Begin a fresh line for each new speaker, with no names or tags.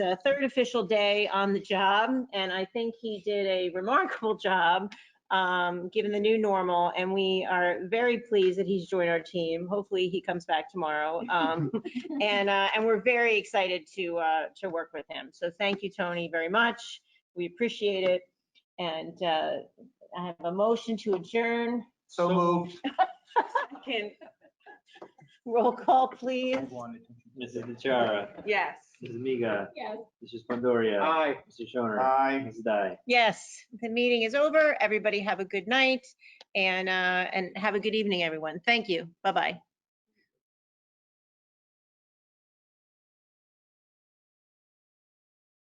uh, third official day on the job, and I think he did a remarkable job, um, given the new normal, and we are very pleased that he's joined our team. Hopefully, he comes back tomorrow. Um, And, uh, and we're very excited to, uh, to work with him. So thank you, Tony, very much. We appreciate it. And uh, I have a motion to adjourn.
So moved.
Can Roll call, please.
Mrs. Natara,
Yes.
Mrs. Miga,
Yes.
Mrs. Pandoria,
Aye.
Mr. Shoner,
Aye.
Mrs. Dai.
Yes, the meeting is over. Everybody have a good night and, uh, and have a good evening, everyone. Thank you. Bye-bye.